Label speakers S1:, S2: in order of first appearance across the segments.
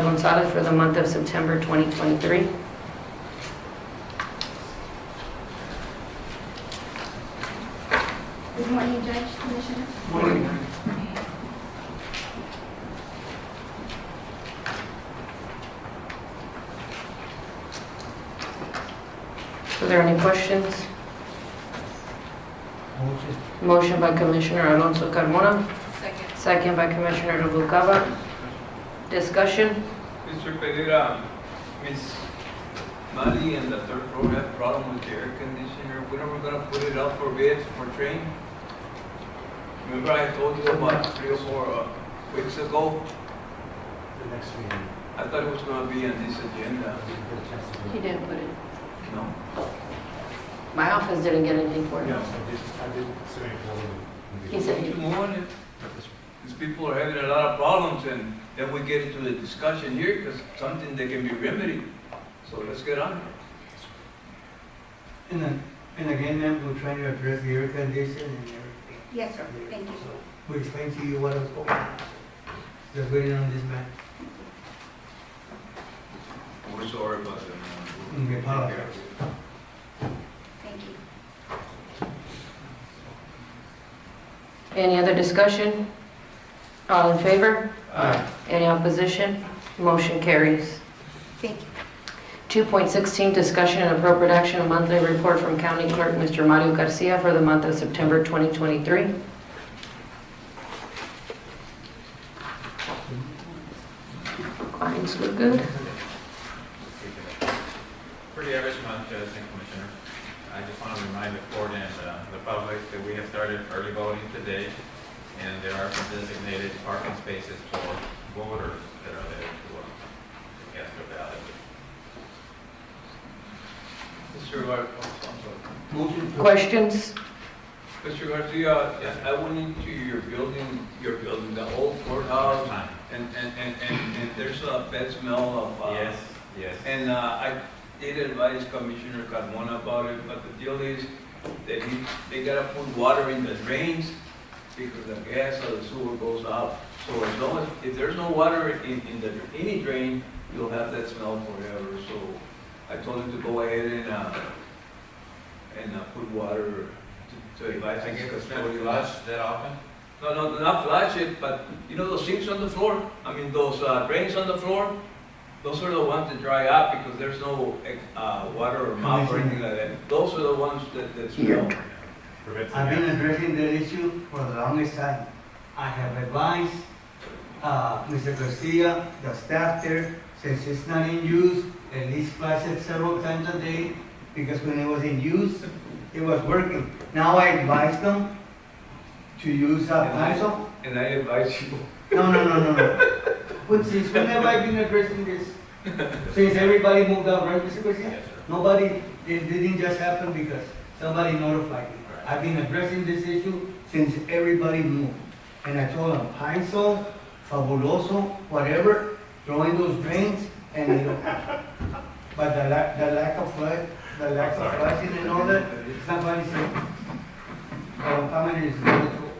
S1: Gonzalez for the month of September 2023.
S2: Good morning, Judge, Commissioner.
S1: Are there any questions?
S3: Motion.
S1: Motion by Commissioner Alonso Carmona. Second. Second by Commissioner Noguera. Discussion?
S4: Mr. Pereira, Ms. Mali and the third floor have problem with the air conditioner. When are we gonna put it out for bids for train? Remember I told you about three or four uh, weeks ago?
S3: The next meeting,
S4: I thought it was gonna be on this agenda.
S3: we can get a chance to.
S1: He didn't put it.
S4: No?
S1: My office didn't get anything for it.
S3: Yes, I did, I did say it already.
S1: He said
S4: To
S1: he,
S4: move on it. These people are having a lot of problems and then we get into the discussion here because something that can be remedied. So let's get on it.
S5: And then, and again, ma'am, we're trying to address the air condition and everything.
S2: Yes, sir, thank you.
S5: We explained to you what was going on. Just waiting on this man.
S4: We're sorry about that.
S5: Mm, we
S4: Take care of it.
S5: apologize.
S2: Thank you.
S1: any other discussion? All in favor? Any opposition? Motion carries.
S2: Thank you.
S1: 2.16, discussion and appropriate action, a monthly report from County Clerk Mr. Mario Garcia for the month of September 2023. Clients look good.
S6: Pretty average month, Judge and Commissioner. I just want to remind the court and uh, the public that we have started early voting today, and there are some designated parking spaces for voters that are there to uh, cast their ballot.
S4: Mr. Gar- oh, I'm sorry.
S5: Motion to.
S1: Questions?
S4: Mr. Garcia, I- I went into your building, your building, the old courthouse,
S6: Time.
S4: and, and, and, and and there's a bad smell of, uh...
S6: Yes, yes.
S4: And, uh, I did advise Commissioner Carmona about it, but the deal is that he, they gotta put water in the drains because the gas or the sewer goes out. So as long as, if there's no water in, in the, any drain, you'll have that smell forever. So I told him to go ahead and, uh, and, uh, put water to, to advise.
S6: I
S4: his
S6: guess it's not
S4: custodian.
S6: flush that often?
S4: No, no, not flush it, but you know those sinks on the floor? I mean, those uh, drains on the floor? Those are the ones that dry out because there's no uh, water or mouth or anything like that. Those are the ones that, that smell.
S6: Prevents the
S5: I've been
S6: gas.
S5: addressing that issue for the longest time. I have advised, uh, Mr. Garcia, the staff there, since it's not in use, at least flush it several times a day, because when it was in use, it was working. Now I advise them to use a pencil
S4: And I advise you,
S5: No, no, no, no, no. But since when have I been addressing this? Since everybody moved out, right, Mr. Garcia?
S6: Yes, sir.
S5: Nobody, it didn't just happen because somebody notified me. I've been addressing this issue since everybody moved. And I told them, Heinzel, Fabuloso, whatever, throw in those drains and it'll happen. But the lack, the lack of flood, the lack of
S6: Sorry.
S5: flushing and all that, somebody said, uh, comment is not true.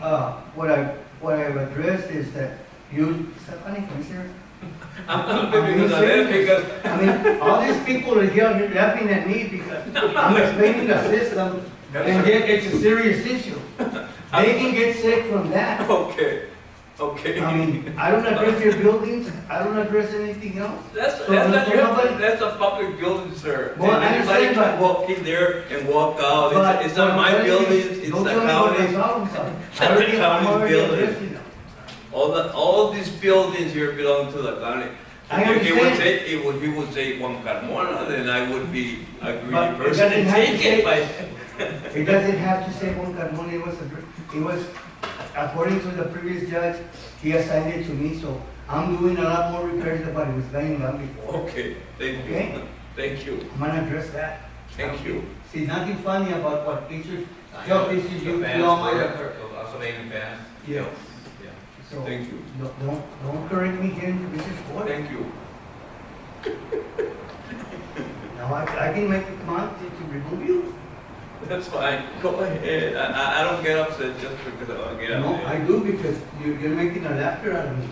S5: Uh, what I, what I've addressed is that you, Stephanie, Commissioner,
S4: I'm not living with that because
S5: I mean, all these people are here here laughing at me because I'm explaining the system and yet it's a serious issue. They can get sick from that.
S4: okay, okay.
S5: I mean, I don't address your buildings, I don't address anything else.
S4: That's,
S5: So
S4: that's, not
S5: there's
S4: your-
S5: nobody-
S4: that's a public building, sir.
S5: Well, I
S4: Anybody
S5: understand,
S4: can
S5: but-
S4: walk in there and walk out. It's- It's not
S5: But what
S4: my
S5: I'm telling you is,
S4: building, it's
S5: don't
S4: the
S5: tell me what my
S4: county.
S5: problems are.
S4: It's
S5: I
S4: the
S5: already- I'm
S4: county's
S5: already
S4: building.
S5: addressing them.
S4: All the, all these buildings here belong to the county.
S5: I
S4: If he would
S5: understand.
S4: say, if would- he would say Juan Carmona, then I would be a greedy
S5: But it
S4: person
S5: doesn't
S4: and
S5: have to
S4: take it,
S5: say-
S4: but
S5: It doesn't have to say Juan Carmona, it was, a- it was, according to the previous judge, he assigned it to me, so I'm doing a lot more repairs than what I was laying down before.
S4: Okay, thank
S5: Okay.
S4: you, thank you,
S5: I'm gonna address that. Um,
S4: thank you.
S5: See, nothing funny about what pictures,
S6: I know.
S5: job issues
S6: The
S5: you,
S6: fans
S5: you all might
S6: were-
S5: have heard.
S6: Also, they in fans.
S5: Yes.
S6: Yeah.
S5: So,
S4: Thank you.
S5: don't, don't- don't correct me here in Commissioner's Court.
S4: Thank you.
S5: Now, I, I can make a comment to remove you?
S4: That's fine, go ahead. I, I, I don't get upset just because I don't get
S5: No, I
S4: upset.
S5: do because you, you're making a laughter out of me.